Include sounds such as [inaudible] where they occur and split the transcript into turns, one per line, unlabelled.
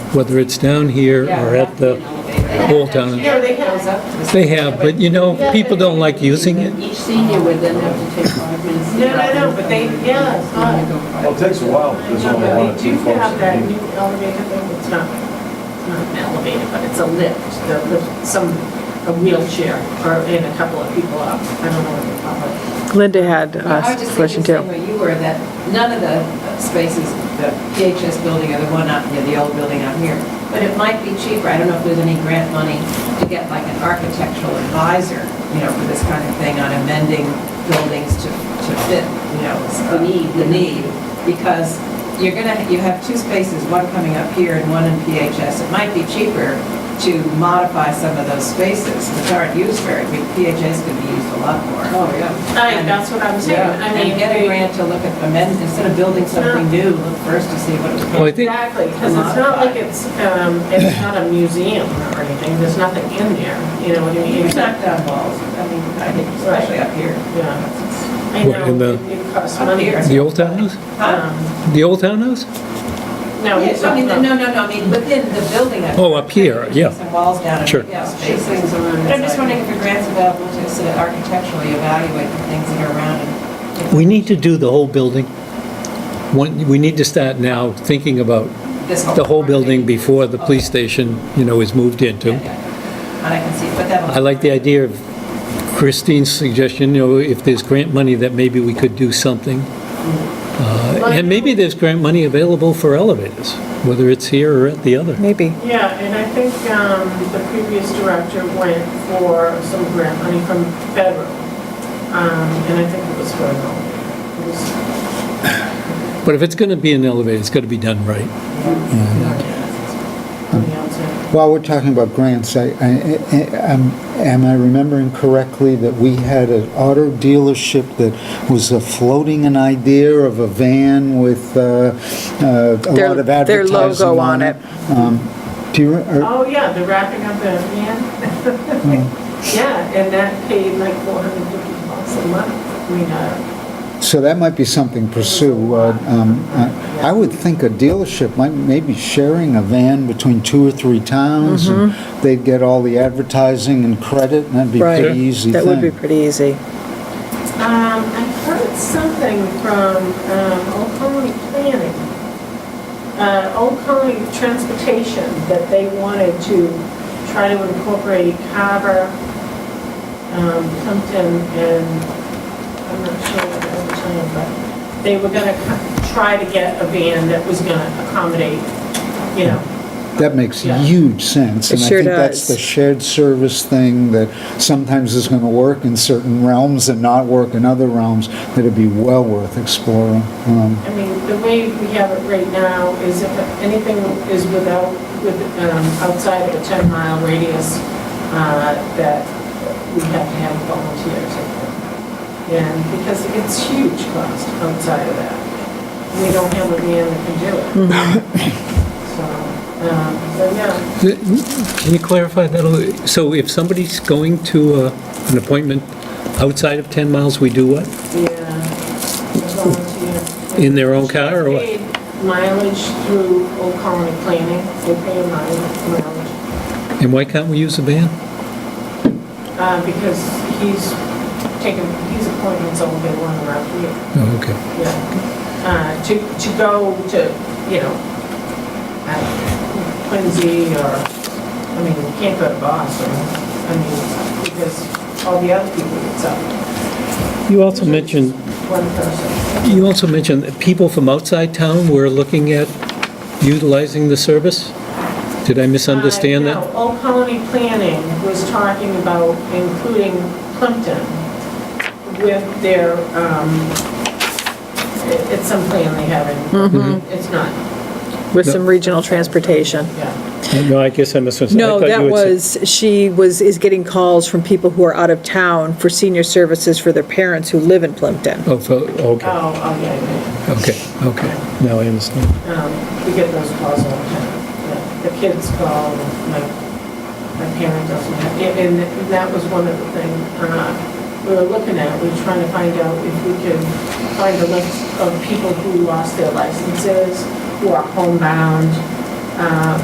whether it's down here or at the whole town.
No, they have.
They have, but you know, people don't like using it.
Each senior would then have to take five minutes.
No, no, no, but they, yeah, it's not.
Well, it takes a while, if there's
No,
only
but
one or
they do
two folks.
have that
that
new
need-
elevator thing, it's not, it's not an elevator, but it's a lift, the lift, some, a wheelchair, or, and a couple of people up, I don't know what they call it.
Linda had
I
a
was just
question
thinking,
too.
same where you were, that none of the spaces, the PHS building or the one up near the old building out here, but it might be cheaper, I don't know if there's any grant money to get like an architectural advisor, you know, for this kind of thing on amending buildings to, to fit, you know, the need, the need, because you're gonna, you have two spaces, one coming up here and one in PHS, it might be cheaper to modify some of those spaces, which aren't used very, I mean, PHS could be used a lot more. Oh, yeah.
I, that's what I'm saying,
Yeah,
I mean,
and get a
they-
grant to look at amend, instead of building something new, look first to see what
Well, I
it
think,
exactly, because it's not like it's, um, it's not a museum or anything, there's nothing in there, you know what I mean?
was.
It's not-
Knock down walls, I mean, I think especially up here.
Yeah, I
What, in
know,
the-
it- it costs money.
Up
the old townhouse?
Huh?
Um,
The old townhouse?
No,
Yes, I mean, no, no, no, I mean, within the building. up
Oh, up here, yeah.
Some walls down. and,
Sure.
Yeah, spaces. But I'm just wondering if a grant's available to sort of architecturally evaluate the things that are around and
We need to do the whole building. One, we need to start now thinking about
this
the whole building before the police station, you know, is moved
Yeah,
into.
yeah. And I can see, but that.
I like the idea of Christine's suggestion, you know, if there's grant money, that maybe we could do something. Uh, And maybe there's grant money available for elevators, whether it's here or at the other.
Maybe.
Yeah, and I think um, the previous director went for some grant money from federal, um, and I think it was for an elevator. It was-
But if it's going to be an elevator, it's got to be done right.
on the outside.
While we're talking about grants, I, I- I- am am I remembering correctly that we had an auto dealership that was uh, floating an idea of a van with uh, uh, a
Their-
lot of
their
advertising
logo on
on it? Um, Do you, re- or-
Oh, yeah, the wrapping up the man. [laughs] Yeah, and that paid like 450 bucks a month. I mean, uh,
so that might be something to pursue. uh, um, I I would think a dealership might, maybe sharing a van between two or three towns, and they'd get all the advertising and credit, and that'd be
Mm-hmm. Right.
pretty easy
That would be
thing.
pretty easy.
um, I heard something from um, Old Colony Planning, uh, Old Colony Transportation, that they wanted to try to incorporate Carver, um, Plimpton, and I'm not sure what the other town, but they were going to try to get a van that was going to accommodate, you know,
That makes
Yeah.
huge sense.
It sure
And I think that's
does.
the shared service thing that sometimes is going to work in certain realms and not work in other realms, that it'd be well worth exploring. Um,
I mean, the way we have it right now is if anything is without, with, um, outside of a 10-mile radius, uh, that we have to have volunteers. in there. And because it's huge cost outside of that. We don't have a man that can do it. So, um, so, yeah,
Can you clarify that? a little? So if somebody's going to uh, an appointment outside of 10 miles, we do what?
yeah, volunteer.
In their own car or what?
Paid Mileage through Old Colony Planning, they pay a mile- mileage.
And why can't we use a van?
Uh, because he's taken, he's appointments all day long around here,
Oh, okay.
yeah. Uh, To, to go to, you know, I don't know, Quincy or, I mean, you can't go to Boston, I mean, because all the other people, it's up
You also mentioned,
one person.
you also mentioned that people from outside town were looking at utilizing the service? Did I misunderstand
Uh,
that?
No, Old Colony Planning was talking about including Plimpton with their, um, it- it's some plan they have in,
Mm-hmm.
it's not,
With some regional transportation.
yeah.
No, I guess I misunderstood. I
No,
thought
that
you had said-
was, she was, is getting calls from people who are out of town for senior services for their parents who live in Plimpton.
Oh, for- okay,
Oh, oh, yeah, yeah,
okay, okay. Now I understand.
yeah. Um, we get those calls all the time. Yeah, The kids call, like, my parent doesn't have, yeah, and th- that was one of the things uh, we were looking at. We were trying to find out if we could find a list of people who lost their licenses, who are homebound, uh,